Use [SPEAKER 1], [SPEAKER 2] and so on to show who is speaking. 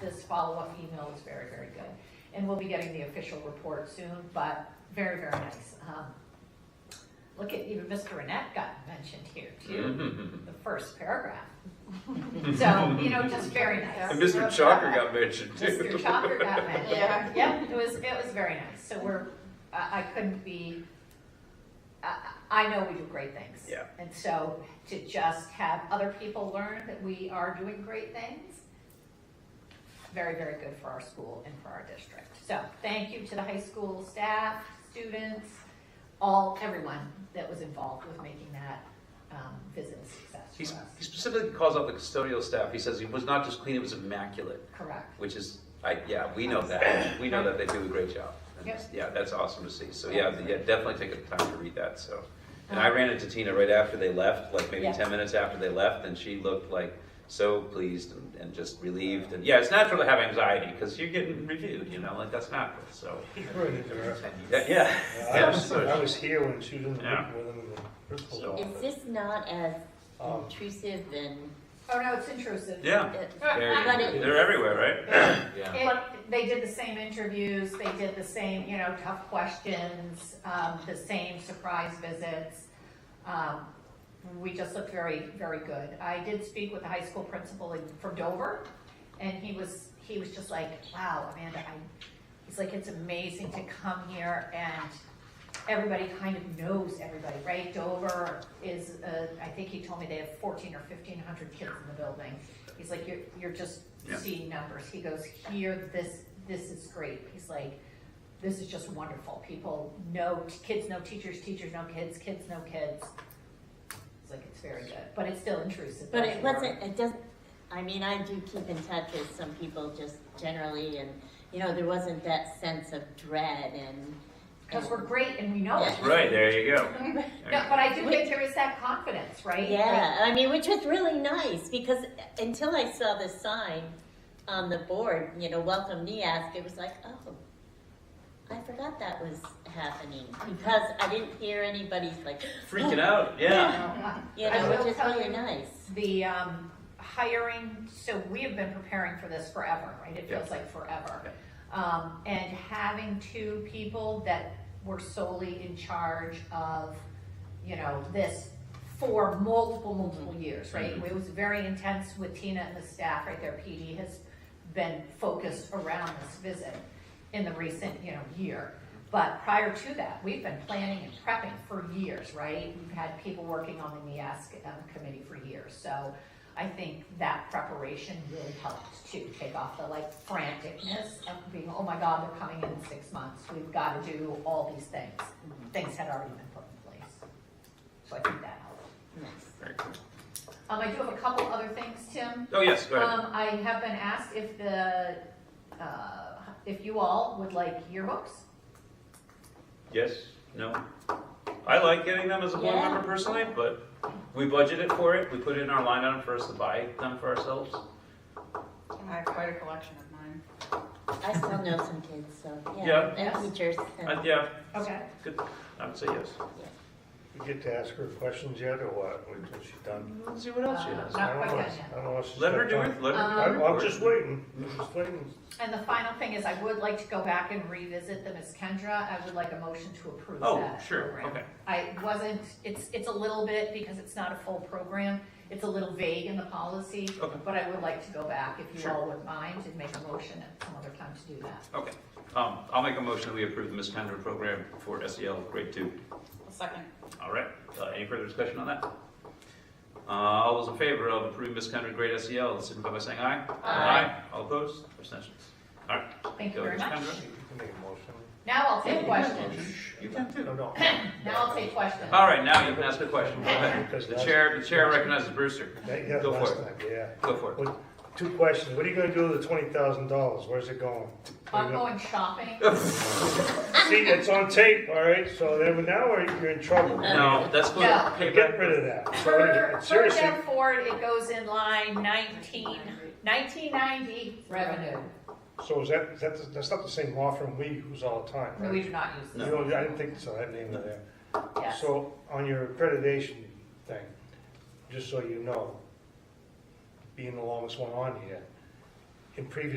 [SPEAKER 1] this follow-up email is very, very good. And we'll be getting the official report soon, but very, very nice. Um, Look at, even Mr. Annette got mentioned here
[SPEAKER 2] Mm-hmm.
[SPEAKER 1] too, the first paragraph. So, you know, just very nice.
[SPEAKER 2] And Mr. Chalker got mentioned too.
[SPEAKER 1] Mr. Chalker got that.
[SPEAKER 3] Yeah.
[SPEAKER 1] Yep, it was, it was very nice. So we're, I, I couldn't be, I, I know we do great things.
[SPEAKER 2] Yeah.
[SPEAKER 1] And so to just have other people learn that we are doing great things, very, very good for our school and for our district. So thank you to the high school staff, students, all, everyone that was involved with making that, um, visit a
[SPEAKER 2] He
[SPEAKER 1] success for
[SPEAKER 2] s-
[SPEAKER 1] us.
[SPEAKER 2] he specifically calls out the custodial staff. He says it was not just clean, it was immaculate,
[SPEAKER 1] Correct.
[SPEAKER 2] which is, I, yeah, we know that. We know that they do a great job. And
[SPEAKER 1] Yep.
[SPEAKER 2] Yeah, that's awesome to see. So yeah, th- yeah, definitely take the time to read that, so. And
[SPEAKER 1] Uh-huh.
[SPEAKER 2] I ran into Tina right after they left, like maybe
[SPEAKER 1] Yeah.
[SPEAKER 2] ten minutes after they left, and she looked like so pleased and, and just relieved. And yeah, it's natural to have anxiety because you're getting reviewed, you know, like that's natural, so. Yeah, yeah.
[SPEAKER 4] I
[SPEAKER 2] Yeah,
[SPEAKER 4] was,
[SPEAKER 2] so-
[SPEAKER 4] I was here when she was in the
[SPEAKER 2] Yeah.
[SPEAKER 4] meeting with him in the principal's
[SPEAKER 2] So-
[SPEAKER 3] Is
[SPEAKER 4] office.
[SPEAKER 3] this not as
[SPEAKER 4] Um,
[SPEAKER 3] intrusive and,
[SPEAKER 1] Oh, no, it's intrusive.
[SPEAKER 2] Yeah.
[SPEAKER 3] it- But
[SPEAKER 2] Very-
[SPEAKER 3] it-
[SPEAKER 2] They're everywhere, right?
[SPEAKER 5] Yeah.
[SPEAKER 1] It, they did the same interviews, they did the same, you know, tough questions, um, the same surprise visits. Um, we just looked very, very good. I did speak with the high school principal in- from Dover, and he was, he was just like, wow, Amanda, I, he's like, it's amazing to come here and everybody kind of knows everybody, right? Dover is, uh, I think he told me they have fourteen or fifteen hundred kids in the building. He's like, you're, you're just
[SPEAKER 2] Yeah.
[SPEAKER 1] seeing numbers. He goes, here, this, this is great. He's like, this is just wonderful. People know, kids know teachers, teachers know kids, kids know kids. It's like, it's very good, but it's still intrusive.
[SPEAKER 3] but
[SPEAKER 1] for
[SPEAKER 3] it
[SPEAKER 1] sure.
[SPEAKER 3] wasn't, it doesn't, I mean, I do keep in touch with some people just generally and, you know, there wasn't that sense of dread and.
[SPEAKER 1] Cause we're great and we know it.
[SPEAKER 2] Right, there you go.
[SPEAKER 1] No, but I do think there is that confidence, right?
[SPEAKER 3] Yeah, I mean, which was really nice because until I saw the sign on the board, you know, welcome NEASC, it was like, oh, I forgot that was happening because I didn't hear anybody's like,
[SPEAKER 2] Freaking out, yeah.
[SPEAKER 1] Like,
[SPEAKER 3] you
[SPEAKER 1] I
[SPEAKER 3] know,
[SPEAKER 1] will
[SPEAKER 3] which is
[SPEAKER 1] tell
[SPEAKER 3] really
[SPEAKER 1] you-
[SPEAKER 3] nice.
[SPEAKER 1] the um, hiring, so we have been preparing for this forever, right? It feels
[SPEAKER 2] Yeah.
[SPEAKER 1] like forever. Um, And having two people that were solely in charge of, you know, this for multiple, multiple years, right?
[SPEAKER 2] Mhm.
[SPEAKER 1] It was very intense with Tina and the staff, right? Their PD has been focused around this visit in the recent, you know, year. But prior to that, we've been planning and prepping for years, right? We've had people working on the NIASC um, committee for years. So I think that preparation really helped to take off the like franticness of being, oh my God, they're coming in six months. We've got to do all these things. Things had already been put in place. So I think that helped.
[SPEAKER 3] Nice.
[SPEAKER 2] Very cool.
[SPEAKER 1] Um, I do have a couple other things, Tim.
[SPEAKER 2] Oh, yes, go ahead.
[SPEAKER 1] Um, I have been asked if the, uh, if you all would like yearbooks.
[SPEAKER 2] Yes, no. I like getting them as a board
[SPEAKER 3] Yeah.
[SPEAKER 2] member personally, but we budgeted for it, we put it in our line item for us to buy them for ourselves.
[SPEAKER 6] I have quite a collection of mine.
[SPEAKER 3] I still know some kids, so yeah,
[SPEAKER 2] Yeah.
[SPEAKER 1] Yes.
[SPEAKER 3] and teachers.
[SPEAKER 2] Uh,
[SPEAKER 3] And,
[SPEAKER 2] yeah,
[SPEAKER 1] Okay.
[SPEAKER 2] good, I would say yes.
[SPEAKER 4] You get to ask her questions yet or what, Wait till she's done?
[SPEAKER 2] Let's see what else she has.
[SPEAKER 1] Not
[SPEAKER 4] I don't
[SPEAKER 1] quite
[SPEAKER 4] know.
[SPEAKER 1] done yet. Um,
[SPEAKER 4] I don't know what she's
[SPEAKER 2] Let her
[SPEAKER 4] got
[SPEAKER 2] do
[SPEAKER 4] done.
[SPEAKER 2] it, let her.
[SPEAKER 4] I'm,
[SPEAKER 2] do
[SPEAKER 4] I'm
[SPEAKER 2] it.
[SPEAKER 4] just waiting, I'm just waiting.
[SPEAKER 1] And the final thing is, I would like to go back and revisit the Miss Kendra. I would like a motion to approve
[SPEAKER 2] Oh,
[SPEAKER 1] that
[SPEAKER 2] sure,
[SPEAKER 1] program.
[SPEAKER 2] okay.
[SPEAKER 1] I wasn't, it's, it's a little bit, because it's not a full program, it's a little vague in the policy.
[SPEAKER 2] Okay.
[SPEAKER 1] But I would like to go back, if you
[SPEAKER 2] Sure.
[SPEAKER 1] all would mind, and make a motion at some other time to do that.
[SPEAKER 2] Okay, um, I'll make a motion that we approve the Miss Kendra program for SEL grade two.
[SPEAKER 6] A second.
[SPEAKER 2] All right, uh, any further discussion on that? Uh, all those in favor of approving Miss Kendra grade SEL, E signify by saying aye. Aye. All opposed, abstentions. All right.
[SPEAKER 1] Thank you
[SPEAKER 2] Go,
[SPEAKER 1] very
[SPEAKER 2] Miss
[SPEAKER 1] much.
[SPEAKER 2] Kendra.
[SPEAKER 4] You can make a motion.
[SPEAKER 1] Now I'll take questions.
[SPEAKER 2] You can too.
[SPEAKER 4] No, no.
[SPEAKER 1] Now I'll take questions.
[SPEAKER 2] All right, now you can ask a question. Go ahead.
[SPEAKER 4] Because
[SPEAKER 2] The
[SPEAKER 4] last-
[SPEAKER 2] chair, the chair recognizes Brewster.
[SPEAKER 4] That- yeah,
[SPEAKER 2] Go for
[SPEAKER 4] last
[SPEAKER 2] it.
[SPEAKER 4] time, Yeah.
[SPEAKER 2] Go for it.
[SPEAKER 4] What- Two questions, what are you gonna do with the twenty thousand dollars, where's it going?
[SPEAKER 1] I'm going shopping.
[SPEAKER 4] See, it's on tape, all right, so then now we're- you're in trouble.
[SPEAKER 2] No, that's for
[SPEAKER 1] No.
[SPEAKER 4] Get
[SPEAKER 2] payback.
[SPEAKER 4] rid of that. So,
[SPEAKER 1] Per, per
[SPEAKER 4] Seriously,
[SPEAKER 1] Jeff Ford, it goes in line 19 1990 revenue.
[SPEAKER 4] so is that, is that, that's not the same law firm we use all the time, right?
[SPEAKER 1] We do not use
[SPEAKER 4] You
[SPEAKER 1] this,
[SPEAKER 4] know, I didn't think so, I had name in there.
[SPEAKER 1] yes.
[SPEAKER 4] So on your accreditation thing, just so you know, being the longest one on here, in previous